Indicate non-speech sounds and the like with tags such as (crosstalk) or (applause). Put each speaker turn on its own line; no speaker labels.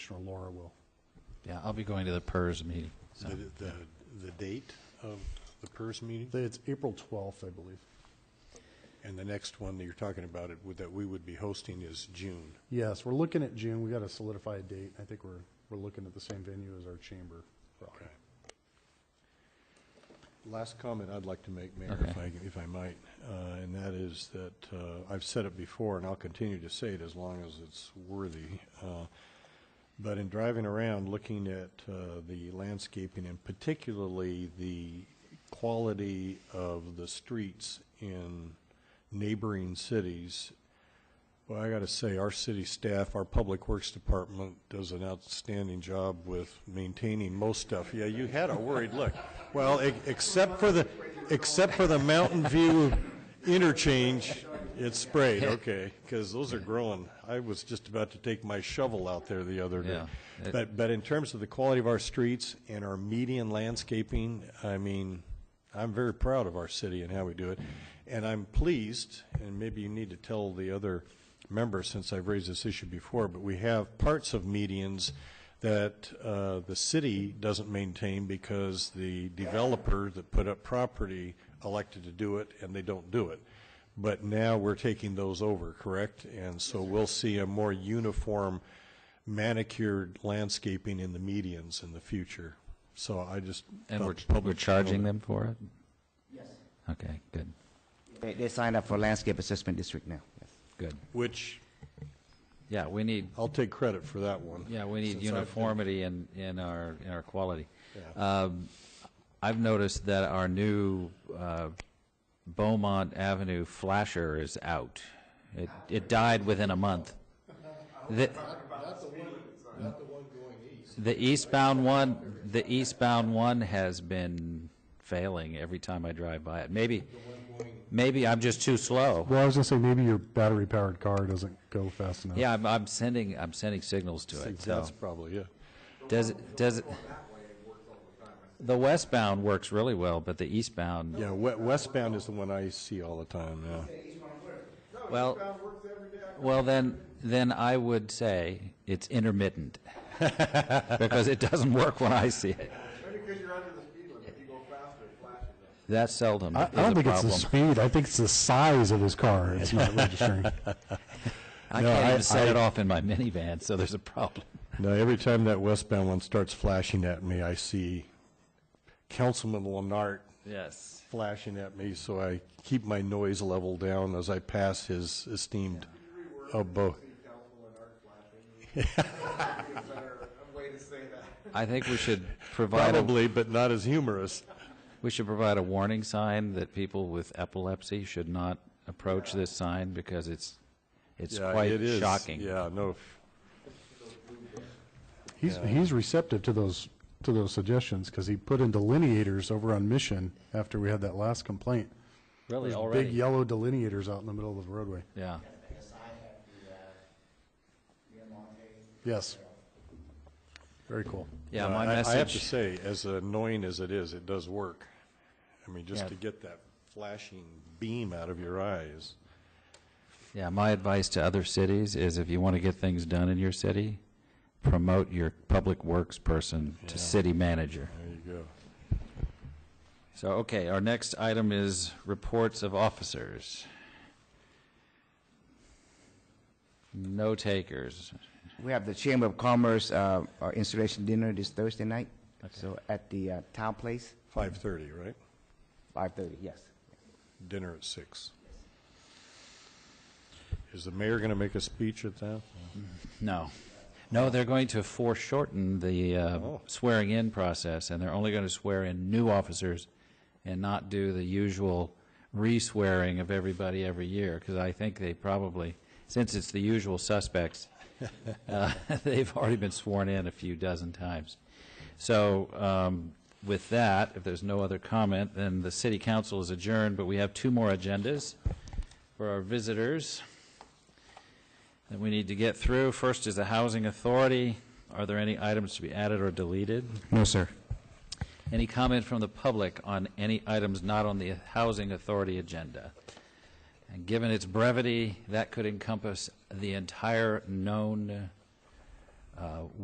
Commissioner Laura will.
Yeah, I'll be going to the PERS meeting. so.
The, the, the date of the PERS meeting?
It's April 12th, I believe.
And the next one that you're talking about it, would- that we would be hosting is June.
Yes, we're looking at June. we got to solidify a date. I think we're, we're looking at the same venue as our chamber.
Okay. Last comment I'd like to make, Mayor, if I,
Okay.
if I might, uh, and that is that, uh, I've said it before, and I'll continue to say it as long as it's worthy. uh, But in driving around, looking at uh, the landscaping and particularly the quality of the streets in neighboring cities, well, I got to say, our city staff, our Public Works Department does an outstanding job with maintaining most stuff. Yeah, you had a worried look. Well, e- except for the, except for the Mountain View interchange, it's sprayed, okay, because those are growing. I was just about to take my shovel out there the other day.
Yeah.
But, but in terms of the quality of our streets and our median landscaping, I mean, I'm very proud of our city and how we do it. And I'm pleased, and maybe you need to tell the other members, since I've raised this issue before, but we have parts of medians that uh, the city doesn't maintain because the developer that put up property elected to do it, and they don't do it. But now we're taking those over, correct? And so we'll see a more uniform manicured landscaping in the medians in the future. So I just.
And
thought
we're,
the
we're
public should know
charging
that.
them for it? Yes. Okay, good,
They, they signed up for landscape assessment district now. Yes.
good.
Which,
Yeah, we need,
I'll take credit for that one.
yeah, we need
Since I've been-
uniformity in, in our, in our quality. Um, I've noticed that our new uh, Beaumont Avenue flasher is out. It, it died within a month. The- The eastbound one, the eastbound one has been failing every time I drive by it. Maybe, maybe I'm just too slow.
Well, I was going to say, maybe your battery-powered car doesn't go fast enough.
Yeah, I'm, I'm sending, I'm sending signals to it, so.
That's probably, yeah.
Does, it? does, it? the westbound works really well, but the eastbound,
Yeah, we- westbound is the one I see all the time, yeah.
well, well, then, then I would say it's intermittent. (laughs) Because it doesn't work when I see it. That seldom
I,
is
I don't
a
think it's the
problem.
speed, I think it's the size of his
(laughs)
car, it's not registering.
I
No,
can't
I-
even set
I-
it off in my minivan, so there's a problem.
Now, every time that westbound one starts flashing at me, I see Councilman Lenart
Yes.
flashing at me, so I keep my noise level down as I pass his esteemed abode.
I think
(laughs)
we should provide a
Probably, but not as humorous.
We should provide a warning sign that people with epilepsy should not approach this sign because it's, it's
Yeah,
quite
it is.
shocking.
Yeah, no,
He's, he's receptive to those, to those suggestions, because he put in delineators over on Mission after we had that last complaint.
Really,
There's
already?
Big yellow delineators out in the middle of the roadway.
Yeah.
Yes. Very cool.
Yeah,
Uh,
my
I- I have to
message,
say, as annoying as it is, it does work. I mean,
Yeah.
just to get that flashing beam out of your eyes.
yeah, my advice to other cities is if you want to get things done in your city, promote your public works person to city manager.
There you go.
So, okay, our next item is reports of officers. No takers.
We have the Chamber of Commerce uh, uh, installation dinner this Thursday night. So at the uh, Town Place,
5:30, right?
5:30, yes.
Dinner at six. Is the mayor going to make a speech at that?
No. No, they're going to foreshorten the uh,
Oh.
swearing-in process, and they're only going to swear in new officers and not do the usual re-swearing of everybody every year, because I think they probably, since it's the usual suspects, uh, (laughs) they've already been sworn in a few dozen times. So um, with that, if there's no other comment, then the city council is adjourned, but we have two more agendas for our visitors that we need to get through. First is the Housing Authority. Are there any items to be added or deleted?
No, sir.
Any comment from the public on any items not on the Housing Authority agenda? And given its brevity, that could encompass the entire known uh,